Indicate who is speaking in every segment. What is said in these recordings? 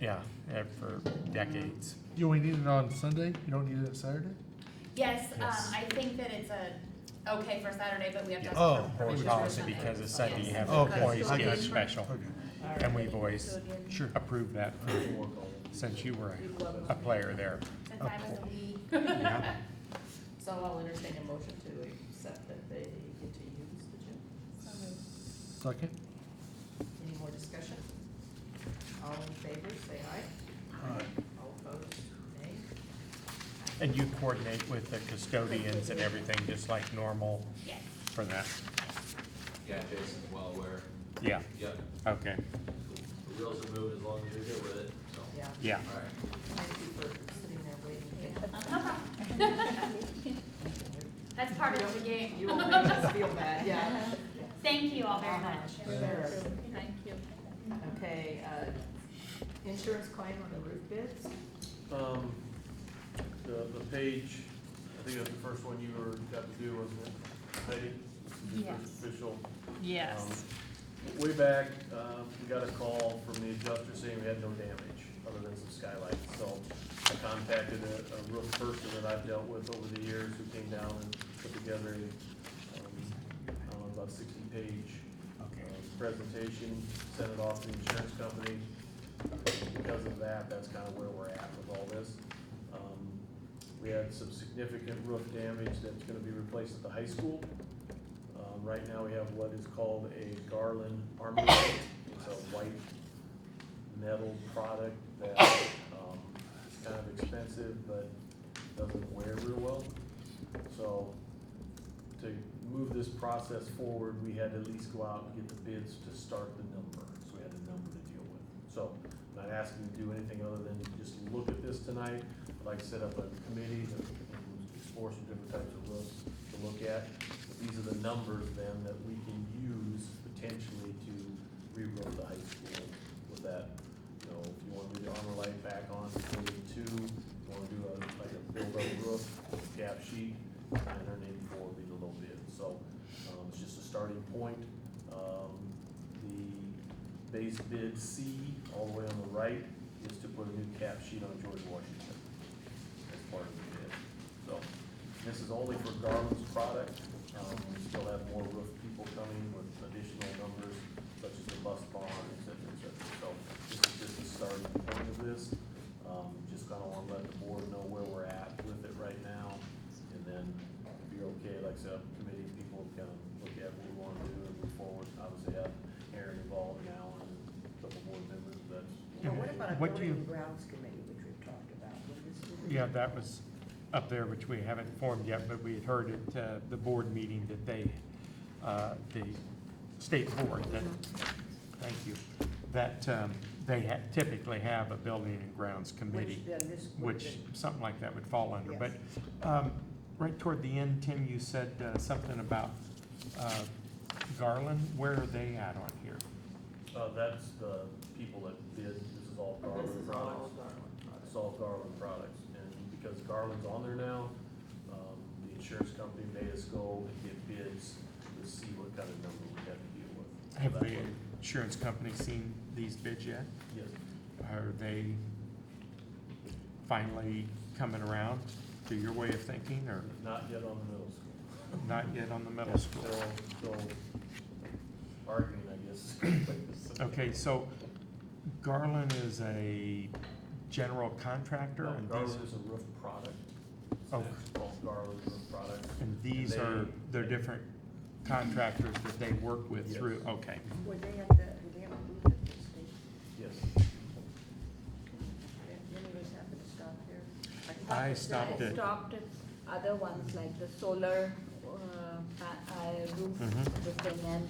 Speaker 1: yeah, yeah, for decades.
Speaker 2: You only need it on Sunday? You don't need it on Saturday?
Speaker 3: Yes, um,
Speaker 1: Yes.
Speaker 3: I think that it's a, okay for Saturday, but we have to.
Speaker 2: Yeah.
Speaker 3: ask for
Speaker 2: Oh,
Speaker 3: permission for
Speaker 1: Policy
Speaker 3: Sunday.
Speaker 1: because it's Sunday, you have
Speaker 2: Oh, okay. I
Speaker 1: employees get
Speaker 2: got
Speaker 1: it
Speaker 2: you.
Speaker 1: special.
Speaker 2: Okay.
Speaker 1: And we've always
Speaker 2: Sure.
Speaker 1: approved that for- since you were a- a player there.
Speaker 3: The time of the week.
Speaker 1: Yeah.
Speaker 4: So I'll entertain a motion to accept that they get to use the gym.
Speaker 2: Second?
Speaker 4: Any more discussion? All in favor, say aye.
Speaker 2: Aye.
Speaker 4: All opposed, nay.
Speaker 1: And you coordinate with the custodians and everything, just like normal
Speaker 3: Yeah.
Speaker 1: for that?
Speaker 5: Yeah, Jason's well aware.
Speaker 1: Yeah,
Speaker 5: Yep,
Speaker 1: okay,
Speaker 5: the wheels are moving as long as you're good with it, so.
Speaker 4: Yeah,
Speaker 1: yeah.
Speaker 5: All right.
Speaker 4: thank you for sitting there waiting.
Speaker 3: That's part of the game.
Speaker 4: You will make us feel bad, yeah.
Speaker 3: Thank you all very much.
Speaker 4: Sure.
Speaker 3: Thank you.
Speaker 4: Okay, uh, insurance claim on the roof bids?
Speaker 6: Um, the, the page, I think that's the first one you were, got to do, wasn't it, Heidi? The
Speaker 7: Yes.
Speaker 6: Official.
Speaker 7: Yes.
Speaker 6: Um, Way back, uh, we got a call from the adjuster saying we had no damage, other than some skylights, so I contacted a, a roof person that I've dealt with over the years, who came down and put together a, um, I don't know, about sixty-page
Speaker 1: Okay.
Speaker 6: uh, presentation, sent it off to the insurance company. Because of that, that's kind of where we're at with all this. Um, We had some significant roof damage that's gonna be replaced at the high school. Um, Right now, we have what is called a garland armor. It's a white metal product that, um, is kind of expensive, but doesn't wear real well. So, to move this process forward, we had to at least go out and get the bids to start the number, so we had a number to deal with. So, I'm not asking you to do anything other than just look at this tonight, I'd like to set up a committee to explore some different types of roofs to look at. But These are the numbers then that we can use potentially to re-roof the high school with that, you know, if you wanna do the armor light back on, building two, you wanna do a, like a build-up roof, cap sheet, nine hundred eighty-four would be the low bid, so, um, it's just a starting point. Um, the base bid C, all the way on the right, is to put a new cap sheet on George Washington as part of the bid. So, this is only for Garland's product, um, we still have more roof people coming with additional numbers, such as the bus barn, et cetera, et cetera. So, this is just the starting point of this, um, just kinda wanna let the board know where we're at with it right now, and then if you're okay, like I said, committee people can look at what we wanna do and move forward, obviously have Aaron involved now and a couple board members, that's.
Speaker 1: Yeah,
Speaker 8: what about a
Speaker 1: What do
Speaker 8: building
Speaker 1: you-
Speaker 8: and grounds committee, which we've talked about? Would this be-
Speaker 1: Yeah, that was up there, which we haven't formed yet, but we had heard at uh, the board meeting that they, uh, the state board, that,
Speaker 8: Mm-hmm.
Speaker 1: thank you, that um, they ha- typically have a building and grounds committee,
Speaker 8: Which then this would
Speaker 1: which
Speaker 8: be-
Speaker 1: something like that would fall under. But um, right toward the end, Tim, you said uh, something about uh, Garland. Where are they at on here?
Speaker 6: Uh, that's the people that bid, this is all
Speaker 4: This
Speaker 6: Garland
Speaker 4: is
Speaker 6: products,
Speaker 4: all Garland
Speaker 6: it's
Speaker 4: products.
Speaker 6: all Garland products, and because Garland's on there now, um, the insurance company made us go and get bids to see what kind of number we have to deal with. So
Speaker 1: Have
Speaker 6: that's
Speaker 1: the
Speaker 6: what-
Speaker 1: insurance company seen these bids yet?
Speaker 6: Yes,
Speaker 1: Are they finally coming around to your way of thinking or
Speaker 6: not yet on the middle school.
Speaker 1: not yet on the middle school?
Speaker 6: Still, still arguing, I guess.
Speaker 1: Okay, so Garland is a general contractor
Speaker 6: No,
Speaker 1: and these,
Speaker 6: Garland is a roof product.
Speaker 1: Oh.
Speaker 6: It's called Garland Roof Products.
Speaker 1: and these
Speaker 6: they-
Speaker 1: are, they're different contractors that they work with through, okay.
Speaker 8: Would they have the, would they have a booth at this station?
Speaker 6: Yes.
Speaker 8: Did any of us happen to stop there?
Speaker 1: I stopped
Speaker 9: I
Speaker 1: it.
Speaker 9: stopped at other ones like the solar uh, pa- uh, roof,
Speaker 1: Mhm.
Speaker 9: this thing, and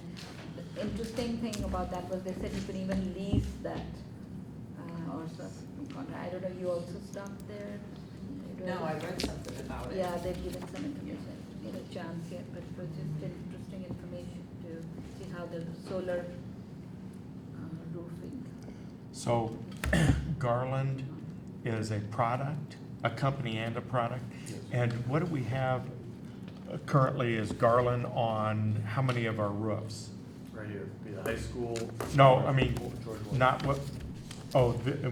Speaker 9: the interesting thing about that was they said you can even lease that uh, or something. I don't know, you also stopped there? You
Speaker 4: No,
Speaker 9: don't-
Speaker 4: I read something about it.
Speaker 9: Yeah, they've given some information, I didn't get a chance yet, but it was just interesting information to see how the solar uh, roofing.
Speaker 1: So Garland is a product, a company and a product? And what do we have uh, currently is Garland on how many of our roofs?
Speaker 6: Right here, be the high school.
Speaker 1: No, I mean,
Speaker 6: George Washington.
Speaker 1: Not what, oh, the-